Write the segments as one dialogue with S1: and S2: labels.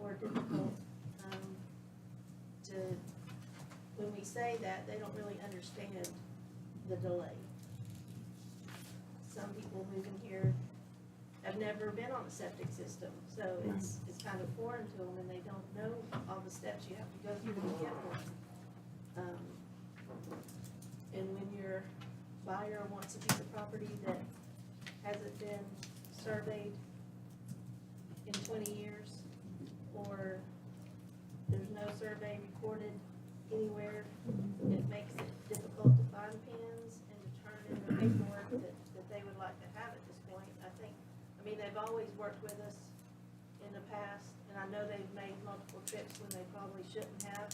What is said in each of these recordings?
S1: um, when we say that, they don't really understand the delay. Some people moving here have never been on a septic system, so it's, it's kind of foreign to them, and they don't know all the steps you have to go through to get one. Um, And when your buyer wants a piece of property that hasn't been surveyed in twenty years, or there's no survey recorded anywhere, it makes it difficult to find pins and to turn in the paperwork that, that they would like to have at this point. I think, I mean, they've always worked with us in the past, and I know they've made multiple trips when they probably shouldn't have,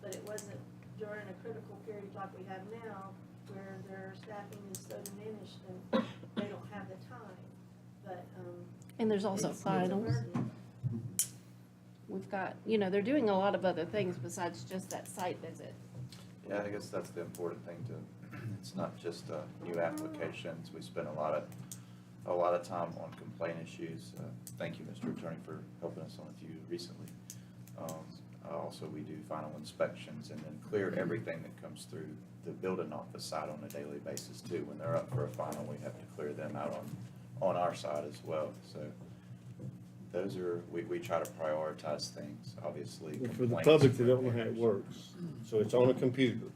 S1: but it wasn't during a critical period like we have now, where their staffing is so diminished and they don't have the time, but, um.
S2: And there's also
S1: it's- it's a
S2: finals.
S1: burden.
S2: We've got, you know, they're doing a lot of other things besides just that site visit.
S3: Yeah, I guess that's the important thing to, it's not just, uh, new applications, we spend a lot of, a lot of time on complaint issues. Uh, Thank you, Mr. Attorney, for helping us on a few recently. Um, uh, also, we do final inspections and then clear everything that comes through the building office side on a daily basis too. When they're up for a final, we have to clear them out on, on our side as well, so. Those are, we, we try to prioritize things, obviously.
S4: For the
S3: complaints
S4: public that
S3: and
S4: don't know how it
S3: repairs.
S4: works, so it's on a computer.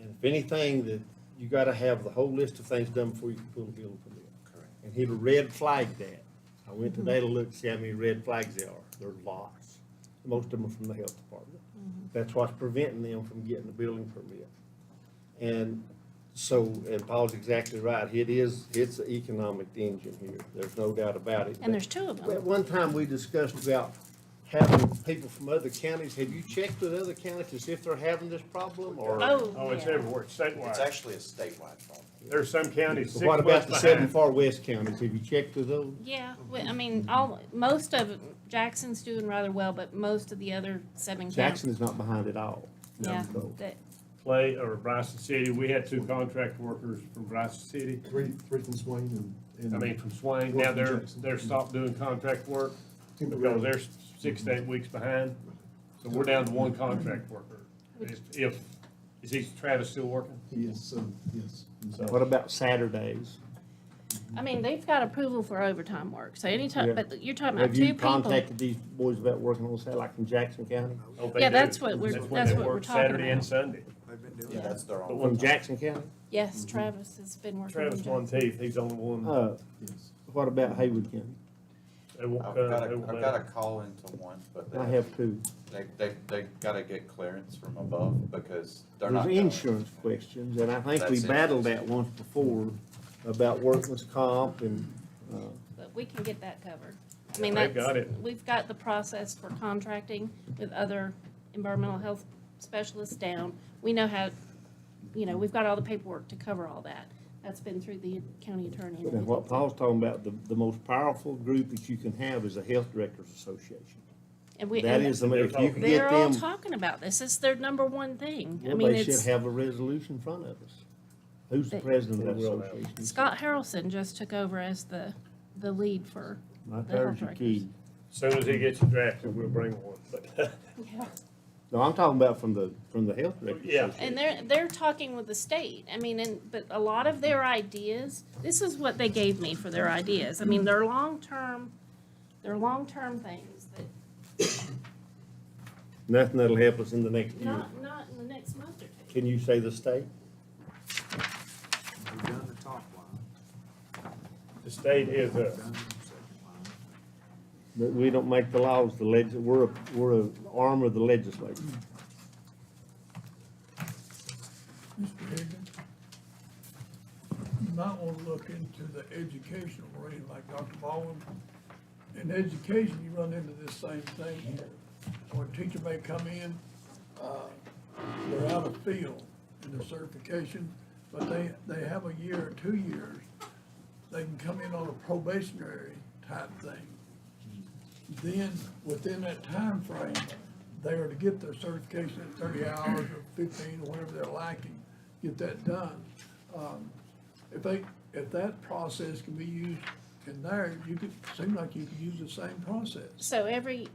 S4: And if anything, that, you gotta have the whole list of things done before you can pull a building permit.
S3: Correct.
S4: And he'll red flag that. I went
S2: Mm-hmm.
S4: today to look, see how many red flags there are. There's lots. Most of them are from the health department.
S2: Mm-hmm.
S4: That's what's preventing them from getting a building permit. And so, and Paul's exactly right. It is, it's an economic engine here. There's no doubt about it.
S2: And there's two of
S4: At
S2: them.
S4: one time, we discussed about having people from other counties. Have you checked with other counties to see if they're having this problem or?
S5: Oh,
S2: Oh,
S5: it's
S2: yeah.
S5: everywhere, It's
S3: It's
S5: statewide.
S3: actually a statewide problem.
S5: There's some counties six
S4: What about the
S5: months
S4: seven
S5: behind.
S4: far west counties? Have you checked with those?
S2: Yeah, we- I mean, all, most of, Jackson's doing rather well, but most of the other seven counties.
S4: Jackson is not behind at all.
S2: Yeah,
S4: No.
S2: that-
S5: Clay or Bryson City, we had two contract workers from Bryson City,
S6: Three, three from Swain and.
S5: I mean, from Swain, now they're, they're stopped doing contract work because they're six to eight weeks behind. So we're down to one contract worker. If- If, is he Travis still working?
S6: Yes, um, yes.
S4: What about Saturdays?
S2: I mean, they've got approval for overtime work, so anytime,
S4: Yeah.
S2: but you're talking about
S4: Have
S2: two
S4: you
S2: people.
S4: contacted these boys about working on Saturday, like in Jackson County?
S5: Oh, they
S2: Yeah,
S5: do.
S2: that's what we're-
S5: when
S2: that's
S5: they
S2: what we're
S5: work
S2: talking
S5: Saturday and
S2: about.
S5: Sunday.
S6: They've been doing
S3: Yeah, that's their own.
S4: From Jackson County?
S2: Yes, Travis has been working. on
S5: Travis
S2: Jackson.
S5: Monteith, he's the only one.
S4: Uh, what about Haywood County?
S5: They won't
S3: I've
S5: come,
S3: got
S5: uh, they
S3: a,
S5: won't
S3: I've
S5: let
S3: got a
S5: him.
S3: call into one, but
S4: I
S3: they,
S4: have two.
S3: they, they, they gotta get clearance from above because they're not.
S4: There's
S3: going.
S4: insurance questions, and I think we
S3: That's it.
S4: battled that once before about workman's comp and, uh,
S2: But we can get that covered. I
S5: Yeah,
S2: mean,
S5: they've
S2: that's.
S5: got it.
S2: We've got the process for contracting with other environmental health specialists down. We know how, you know, we've got all the paperwork to cover all that. That's been through the county attorney. and
S4: and what
S2: everything.
S4: Paul's talking about, the, the most powerful group that you can have is a health directors association.
S2: And we,
S4: That is,
S2: and
S4: the mo- if you can
S2: they're
S4: get
S2: all
S4: them,
S2: talking about this. It's their number one thing. I
S4: well,
S2: mean,
S4: they should
S2: it's,
S4: have a resolution in front of us. Who's the
S2: They-
S4: president of that association?
S2: Scott Harrelson just took over as the, the lead for,
S4: Right
S2: the
S4: there's
S2: health
S4: your key.
S5: Soon as he gets drafted, we'll bring one, but.
S4: No, I'm talking about from the, from the health directors.
S5: Yeah.
S2: And they're, they're talking with the state, I mean, and, but a lot of their ideas, this is what they gave me for their ideas, I mean, they're long-term, they're long-term things that,
S4: Nothing that'll help us in the next year.
S2: not, not in the next month or two.
S4: Can you say the state?
S6: We've done the top line,
S5: The state is a,
S6: done the second
S4: That we don't make the laws, the legis, we're, a- we're an arm of the legislature.
S7: Mr. Higgins, you might want to look into the educational rate like Dr. Baldwin. In education, you run into this same thing here, where a teacher may come in, uh, they're out of field in their certification, but they, they have a year or two years, they can come in on a probationary type thing then within that time frame, they are to get their certification at thirty hours or fifteen, or whatever they're lacking, get that done. Um, If they, if that process can be used in there, you could, seem like you could use the same process.
S2: So every